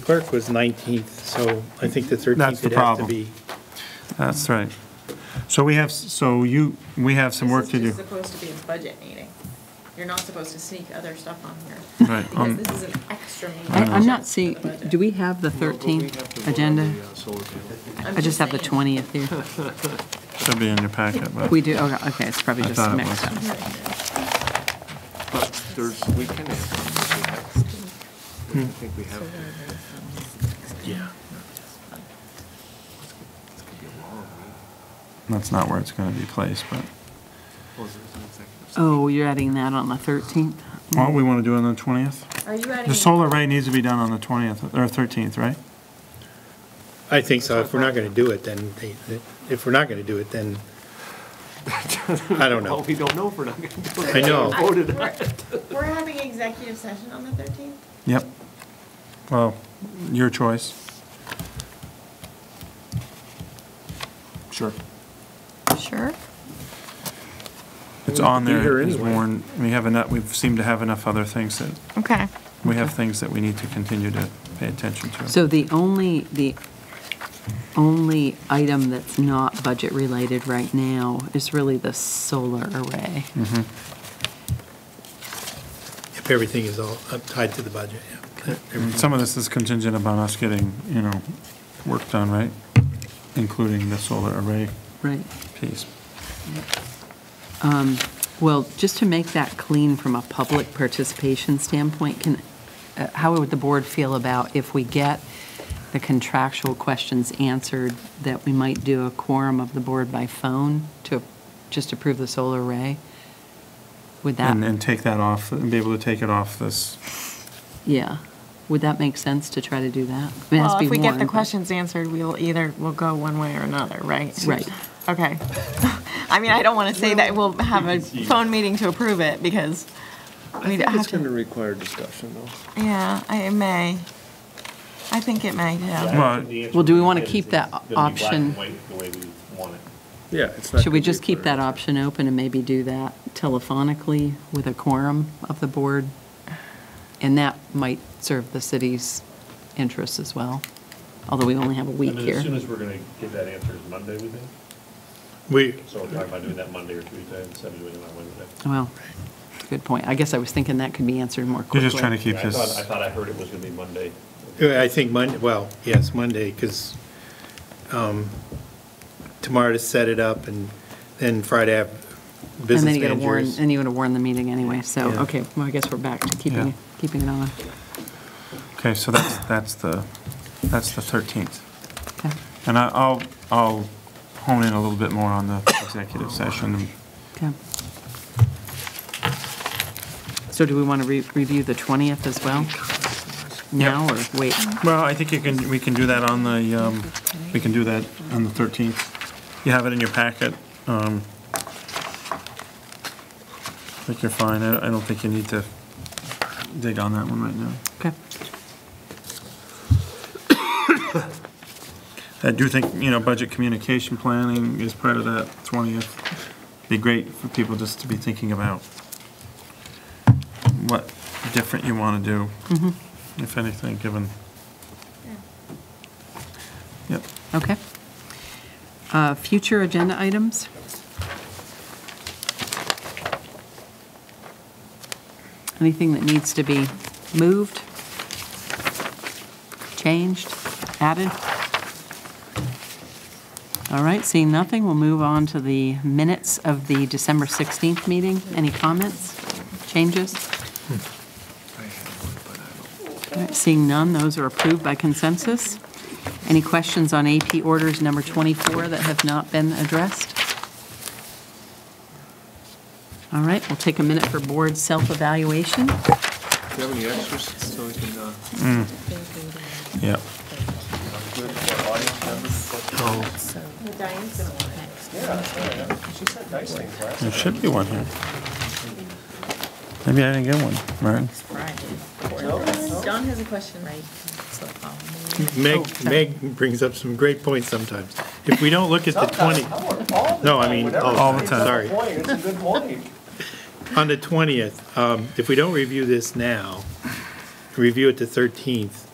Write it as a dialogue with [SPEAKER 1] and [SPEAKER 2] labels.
[SPEAKER 1] clerk was 19th, so I think the 13th
[SPEAKER 2] That's the
[SPEAKER 1] would have to
[SPEAKER 2] problem.
[SPEAKER 1] be.
[SPEAKER 2] That's right. So we have, so you, we have some work to
[SPEAKER 3] This
[SPEAKER 2] do.
[SPEAKER 3] is just supposed to be a budget meeting. You're not supposed to sneak other stuff on here.
[SPEAKER 2] Right,
[SPEAKER 3] Because
[SPEAKER 2] um,
[SPEAKER 3] this is an extra meeting.
[SPEAKER 4] I- I'm not
[SPEAKER 3] for the
[SPEAKER 4] seeing,
[SPEAKER 3] budget.
[SPEAKER 4] do we have the 13th agenda?
[SPEAKER 3] I'm
[SPEAKER 4] I just have the
[SPEAKER 3] saying.
[SPEAKER 4] 20th here.
[SPEAKER 2] Should be in your packet, but.
[SPEAKER 4] We do, okay, okay, it's probably
[SPEAKER 2] I
[SPEAKER 4] just
[SPEAKER 2] thought it
[SPEAKER 4] mixed up.
[SPEAKER 5] But there's, we can answer. I think we have.
[SPEAKER 1] Yeah.
[SPEAKER 5] It's gonna be a long week.
[SPEAKER 2] That's not where it's going to be placed, but.
[SPEAKER 5] Well, there's an executive session.
[SPEAKER 4] Oh, you're adding that on the 13th?
[SPEAKER 2] What we want to do on the 20th?
[SPEAKER 3] Are you adding?
[SPEAKER 2] The solar array needs to be done on the 20th, or 13th, right?
[SPEAKER 1] I think so. If we're not going to do it, then, they- they- if we're not going to do it, then, I don't
[SPEAKER 5] Well,
[SPEAKER 1] know.
[SPEAKER 5] we don't know if we're not gonna do it.
[SPEAKER 1] I know.
[SPEAKER 3] I-
[SPEAKER 5] Voted on
[SPEAKER 3] we're-
[SPEAKER 5] it.
[SPEAKER 3] We're having executive session on the 13th?
[SPEAKER 2] Yep. Well, your choice. Sure.
[SPEAKER 4] Sure.
[SPEAKER 2] It's
[SPEAKER 1] We
[SPEAKER 2] on
[SPEAKER 1] could be here
[SPEAKER 2] there, it's
[SPEAKER 1] anyway.
[SPEAKER 2] worn, we have enough, we seem to have enough other things that,
[SPEAKER 4] Okay.
[SPEAKER 2] we have things that we need to continue to pay attention to.
[SPEAKER 4] So the only, the only item that's not budget-related right now is really the solar array.
[SPEAKER 2] Mm-hmm.
[SPEAKER 1] If everything is all uh, tied to the budget, yeah.
[SPEAKER 2] And Some of this is contingent upon us getting, you know, work done, right? Including the solar array
[SPEAKER 4] Right.
[SPEAKER 2] piece.
[SPEAKER 4] Well, just to make that clean from a public participation standpoint, can, uh, how would the board feel about if we get the contractual questions answered, that we might do a quorum of the board by phone to just approve the solar array? Would
[SPEAKER 2] And,
[SPEAKER 4] that,
[SPEAKER 2] and take that off, and be able to take it off this,
[SPEAKER 4] yeah, would that make sense to try to do that? I mean, it has to
[SPEAKER 3] Well,
[SPEAKER 4] be
[SPEAKER 3] if we get
[SPEAKER 4] warned,
[SPEAKER 3] the
[SPEAKER 4] but-
[SPEAKER 3] questions answered, we'll either, we'll go one way or another, right?
[SPEAKER 4] Right.
[SPEAKER 3] Okay. I mean, I don't want to say that we'll have a phone meeting to approve it because we have to,
[SPEAKER 5] require discussion, though.
[SPEAKER 3] yeah, I it may. I think it may, yeah.
[SPEAKER 2] well,
[SPEAKER 4] Well, do we wanna keep that option?
[SPEAKER 5] Yeah, it's
[SPEAKER 4] Should we just keep that option open and maybe do that telephonically with a quorum of the board? And that might serve the city's interests as well, although we only have a week
[SPEAKER 6] I mean, as soon
[SPEAKER 4] here.
[SPEAKER 6] as we're going to get that answer is Monday, we think.
[SPEAKER 1] We,
[SPEAKER 6] So we're talking about doing that Monday or Tuesday instead of doing it on Wednesday.
[SPEAKER 4] Well, good point. I guess I was thinking that could be answered more quickly.
[SPEAKER 2] you're just trying to keep
[SPEAKER 6] Yeah, I thought,
[SPEAKER 2] this,
[SPEAKER 6] I thought I heard it was going to be Monday.
[SPEAKER 1] I think Monday, well, yes, Monday, because tomorrow to set it up and then Friday have
[SPEAKER 4] And then
[SPEAKER 1] business
[SPEAKER 4] you gotta warn,
[SPEAKER 1] managers.
[SPEAKER 4] and you gotta warn the meeting anyway, so,
[SPEAKER 1] Yeah.
[SPEAKER 4] okay, well, I guess we're back to
[SPEAKER 2] Yeah.
[SPEAKER 4] keeping, keeping it on.
[SPEAKER 2] okay, so that's, that's the, that's the 13th.
[SPEAKER 4] Okay.
[SPEAKER 2] And I- I'll, I'll hone in a little bit more on the executive session.
[SPEAKER 4] Okay. So do we wanna re- review the 20th as well? Now or wait?
[SPEAKER 2] Well, I think you can, we can do that on the, um, we can do that on the 13th. You have it in your packet. um, I think you're fine. I I don't think you need to dig on that one right now.
[SPEAKER 4] Okay.
[SPEAKER 2] I do think, you know, budget communication planning is part of that 20th. Be great for people just to be thinking about what different you want to do, if anything, given. Yep.
[SPEAKER 4] Okay. Uh, Future agenda items? Anything that needs to be moved, changed, added? All right, seeing nothing, we'll move on to the minutes of the December 16th meeting. Any comments, changes?
[SPEAKER 5] uh,
[SPEAKER 4] All right, Seeing none, those are approved by consensus. Any questions on AP orders number 24 that have not been addressed? All right, we'll take a minute for board self-evaluation.
[SPEAKER 5] Do you have any extras so we can, uh,
[SPEAKER 2] Yep.
[SPEAKER 3] Diane's gonna want it.
[SPEAKER 2] There should be one here. Maybe I didn't get one, Martin.
[SPEAKER 3] Don has a question. Right. um,
[SPEAKER 4] Oh,
[SPEAKER 1] Meg, Meg brings up some great points sometimes. If we don't look at the 20, no, I mean, all the time, sorry.
[SPEAKER 7] It's a good morning.
[SPEAKER 1] On the 20th, um, if we don't review this now, review it the 13th,